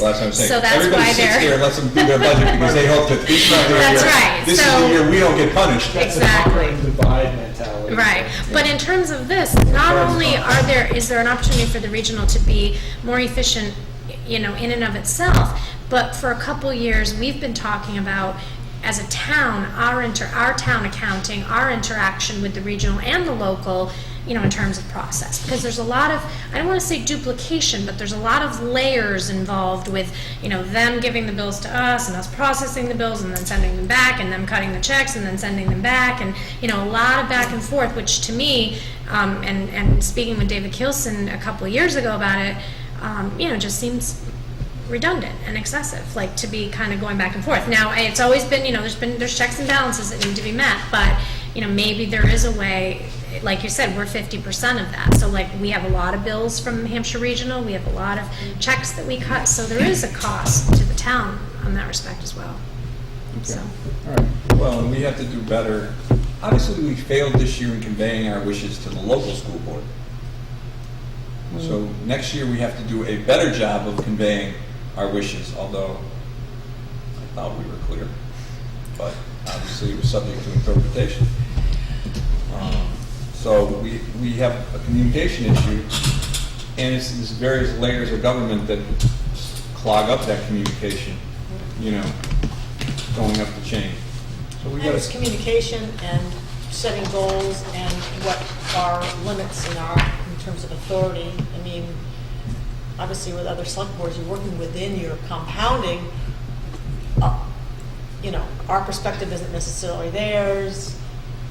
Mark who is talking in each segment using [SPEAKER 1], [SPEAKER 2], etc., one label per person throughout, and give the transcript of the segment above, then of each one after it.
[SPEAKER 1] Well, that's what I'm saying.
[SPEAKER 2] So that's
[SPEAKER 1] Everybody
[SPEAKER 2] why
[SPEAKER 1] sits
[SPEAKER 2] they're-
[SPEAKER 1] here and lets them do their budget because they hope that this is the year.
[SPEAKER 2] That's right.
[SPEAKER 1] This is
[SPEAKER 2] So-
[SPEAKER 1] the year we don't get punished.
[SPEAKER 2] Ex- Exactly.
[SPEAKER 3] Divide mentality.
[SPEAKER 2] Right, but in terms of this, not only are there, is there an opportunity for the regional to be more efficient, you know, in and of itself, but for a couple years, we've been talking about, as a town, our inter, our town accounting, our interaction with the regional and the local, you know, in terms of process, because there's a lot of, I don't want to say duplication, but there's a lot of layers involved with, you know, them giving the bills to us and us processing the bills and then sending them back and them cutting the checks and then sending them back and, you know, a lot of back and forth, which to me, um, and, and speaking with David Kielsen a couple of years ago about it, um, you know, just seems redundant and excessive, like to be kind of going back and forth. Now, it's always been, you know, there's been, there's checks and balances that need to be met, but, you know, maybe there is a way, like you said, we're fifty percent of that. So like, we have a lot of bills from Hampshire Regional, we have a lot of checks that we cut, so there is a cost to the town on that respect as well. So,
[SPEAKER 1] Well, and we have to do better. Obviously, we failed this year in conveying our wishes to the local school board. So next year, we have to do a better job of conveying our wishes, although I thought we were clear. But obviously, it was subject to interpretation. Um, So we, we have a communication issue, and it's these various layers of government that clog up that communication, you know, going up the chain. So we
[SPEAKER 4] And it's
[SPEAKER 1] gotta,
[SPEAKER 4] communication and setting goals and what our limits in our, in terms of authority. I mean, obviously with other select boards, you're working within your compounding. Uh, You know, our perspective isn't necessarily theirs.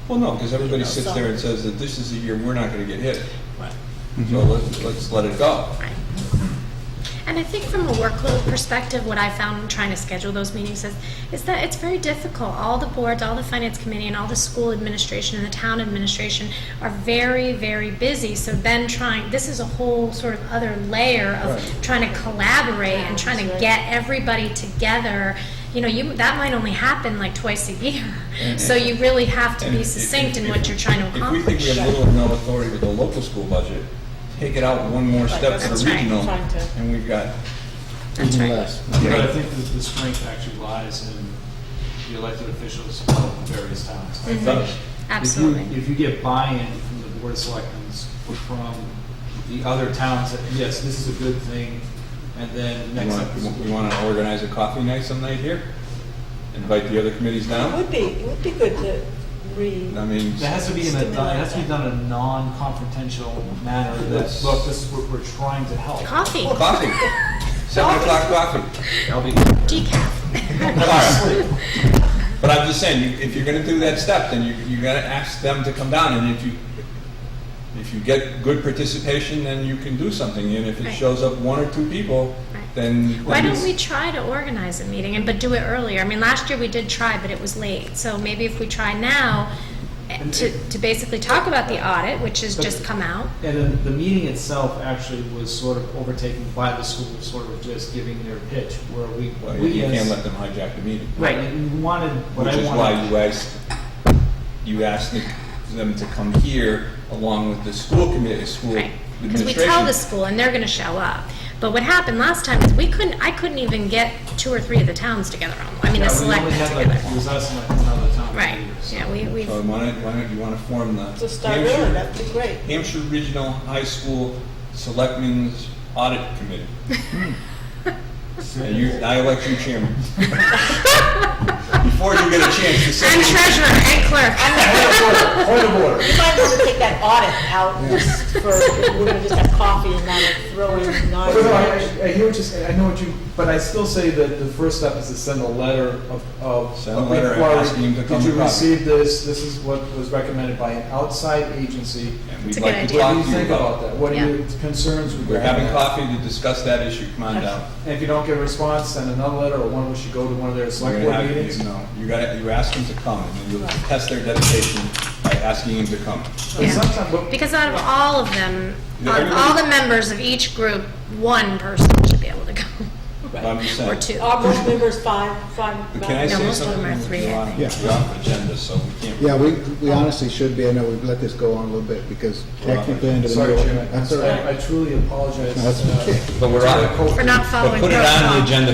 [SPEAKER 1] well, no, because everybody
[SPEAKER 4] You know,
[SPEAKER 1] sits
[SPEAKER 4] so-
[SPEAKER 1] there and says that this is the year we're not gonna get hit,
[SPEAKER 4] Right.
[SPEAKER 1] so let's, let's let it go.
[SPEAKER 2] right. And I think from a workload perspective, what I found trying to schedule those meetings is, is that it's very difficult. All the boards, all the finance committee, and all the school administration and the town administration are very, very busy. So then trying, this is a whole sort of other layer of
[SPEAKER 1] Right.
[SPEAKER 2] trying to collaborate and trying to get everybody together. You know, you that might only happen like twice a year.
[SPEAKER 1] And-
[SPEAKER 2] So you really have to
[SPEAKER 1] And
[SPEAKER 2] be
[SPEAKER 1] if-
[SPEAKER 2] succinct in
[SPEAKER 1] if-
[SPEAKER 2] what you're trying to
[SPEAKER 1] If we think we
[SPEAKER 2] accomplish.
[SPEAKER 1] have little or no authority with the local school budget, take it out one more step to
[SPEAKER 4] that's
[SPEAKER 1] the
[SPEAKER 2] right.
[SPEAKER 1] regional,
[SPEAKER 4] Trying to-
[SPEAKER 1] and we've got,
[SPEAKER 2] That's right.
[SPEAKER 3] But I think that the strength actually lies in the elected officials of various towns. I
[SPEAKER 2] Mm-hmm.
[SPEAKER 3] think
[SPEAKER 1] does.
[SPEAKER 2] Absolutely.
[SPEAKER 3] If you, if you get buy-in from the board of selectmen, from the other towns, that, yes, this is a good thing, and then
[SPEAKER 1] You
[SPEAKER 3] next up is.
[SPEAKER 1] want, you want to organize a coffee night some night here? Invite the other committees
[SPEAKER 4] It
[SPEAKER 1] down?
[SPEAKER 4] would be, it would be good to re,
[SPEAKER 1] I mean,
[SPEAKER 3] That has to be in a, it has to be done in a non-confrontational manner, that, look, this is what we're trying to help.
[SPEAKER 2] Coffee,
[SPEAKER 1] coffee, seven o'clock coffee.
[SPEAKER 3] That'll be-
[SPEAKER 2] decaf.
[SPEAKER 1] All right. But I'm just saying, you- if you're going to do that step, then you, you got to ask them to come down, and if you, if you get good participation, then you can do something, and if it
[SPEAKER 2] Right.
[SPEAKER 1] shows up one or two people,
[SPEAKER 2] Right.
[SPEAKER 1] then.
[SPEAKER 2] Why
[SPEAKER 1] then
[SPEAKER 2] don't we try to organize a meeting and, but do it earlier? I mean, last year we did try, but it was late. So maybe if we try now eh, to, to basically talk about the audit, which has just come out.
[SPEAKER 3] And then the meeting itself actually was sort of overtaken by the school, sort of just giving their pitch, where we,
[SPEAKER 1] Well,
[SPEAKER 3] we
[SPEAKER 1] You can't
[SPEAKER 3] as-
[SPEAKER 1] let them hijack the meeting.
[SPEAKER 3] Right, and we wanted, what
[SPEAKER 1] Which
[SPEAKER 3] I
[SPEAKER 1] is why
[SPEAKER 3] wanted,
[SPEAKER 1] you asked, you asked the- them to come here along with the school committee, school
[SPEAKER 2] Right.
[SPEAKER 1] administration.
[SPEAKER 2] Because we tell the school and they're gonna show up. But what happened last time is we couldn't, I couldn't even get two or three of the towns together on, I mean, the
[SPEAKER 3] yeah, we only
[SPEAKER 2] selectmen
[SPEAKER 3] had like, Um, it
[SPEAKER 2] together.
[SPEAKER 3] was us and like another town.
[SPEAKER 2] Right, yeah, we, we,
[SPEAKER 1] So why don't, why don't you want to form the
[SPEAKER 4] to start early,
[SPEAKER 1] Hampshire,
[SPEAKER 4] that'd be great.
[SPEAKER 1] Hampshire Regional High School Selectmen's Audit Committee?
[SPEAKER 5] Hmm.
[SPEAKER 1] And you, I elect you chairman. Before you get a chance to say.
[SPEAKER 2] and treasurer and clerk.
[SPEAKER 3] Point of order.
[SPEAKER 4] You might want to take that audit out just for, we're gonna just have coffee and not throw in
[SPEAKER 5] No, no, I, I Uh,
[SPEAKER 4] non.
[SPEAKER 5] I hear what you're saying, I know what you, but I still say that the first step is to send a letter of, of.
[SPEAKER 1] Send a
[SPEAKER 5] of
[SPEAKER 1] letter
[SPEAKER 5] inquiry.
[SPEAKER 1] asking him to come
[SPEAKER 5] Did
[SPEAKER 1] to
[SPEAKER 5] you
[SPEAKER 1] us."
[SPEAKER 5] receive this, this is what was recommended by an outside agency.
[SPEAKER 1] And
[SPEAKER 2] It's
[SPEAKER 1] we'd
[SPEAKER 2] a
[SPEAKER 1] like
[SPEAKER 2] good
[SPEAKER 1] to
[SPEAKER 5] What do
[SPEAKER 2] idea.
[SPEAKER 1] talk
[SPEAKER 5] you
[SPEAKER 1] to you
[SPEAKER 5] think about
[SPEAKER 1] about,
[SPEAKER 5] that? What are
[SPEAKER 2] Yeah.
[SPEAKER 5] your concerns regarding that?
[SPEAKER 1] we're having coffee to discuss that issue, come on down.
[SPEAKER 5] And if you don't get a response, send another letter, or one of us should go to one of their
[SPEAKER 1] We're
[SPEAKER 5] select
[SPEAKER 1] gonna
[SPEAKER 5] board
[SPEAKER 1] have
[SPEAKER 5] meetings.
[SPEAKER 1] You know, you gotta, you ask them to come, and then you'll test their dedication by asking them to come.
[SPEAKER 5] And
[SPEAKER 2] Yeah.
[SPEAKER 5] sometimes, but-
[SPEAKER 2] Because out of all of them,
[SPEAKER 1] Yeah,
[SPEAKER 2] out of
[SPEAKER 1] everybody-
[SPEAKER 2] all the members of each group, one person should be able to go.
[SPEAKER 1] But I'm just saying.
[SPEAKER 2] Or two.
[SPEAKER 4] Our board members, five, five.
[SPEAKER 1] But Can I
[SPEAKER 2] No,
[SPEAKER 4] five-
[SPEAKER 1] say
[SPEAKER 2] most of them
[SPEAKER 1] something?
[SPEAKER 2] are three, I
[SPEAKER 1] We're on-
[SPEAKER 2] think.
[SPEAKER 6] Yeah.
[SPEAKER 1] We're off agenda, so we can't.
[SPEAKER 6] Yeah, we, we honestly should be, I know we've let this go on a little bit because technically into the
[SPEAKER 5] Sorry,
[SPEAKER 6] middle.
[SPEAKER 5] Chairman.
[SPEAKER 6] That's all right.
[SPEAKER 5] I I truly apologize.
[SPEAKER 6] No, that's
[SPEAKER 5] uh,
[SPEAKER 6] okay.
[SPEAKER 1] But we're on.
[SPEAKER 5] to the co-
[SPEAKER 2] For not
[SPEAKER 1] But
[SPEAKER 2] following
[SPEAKER 1] put it on
[SPEAKER 2] protocol.
[SPEAKER 1] the agenda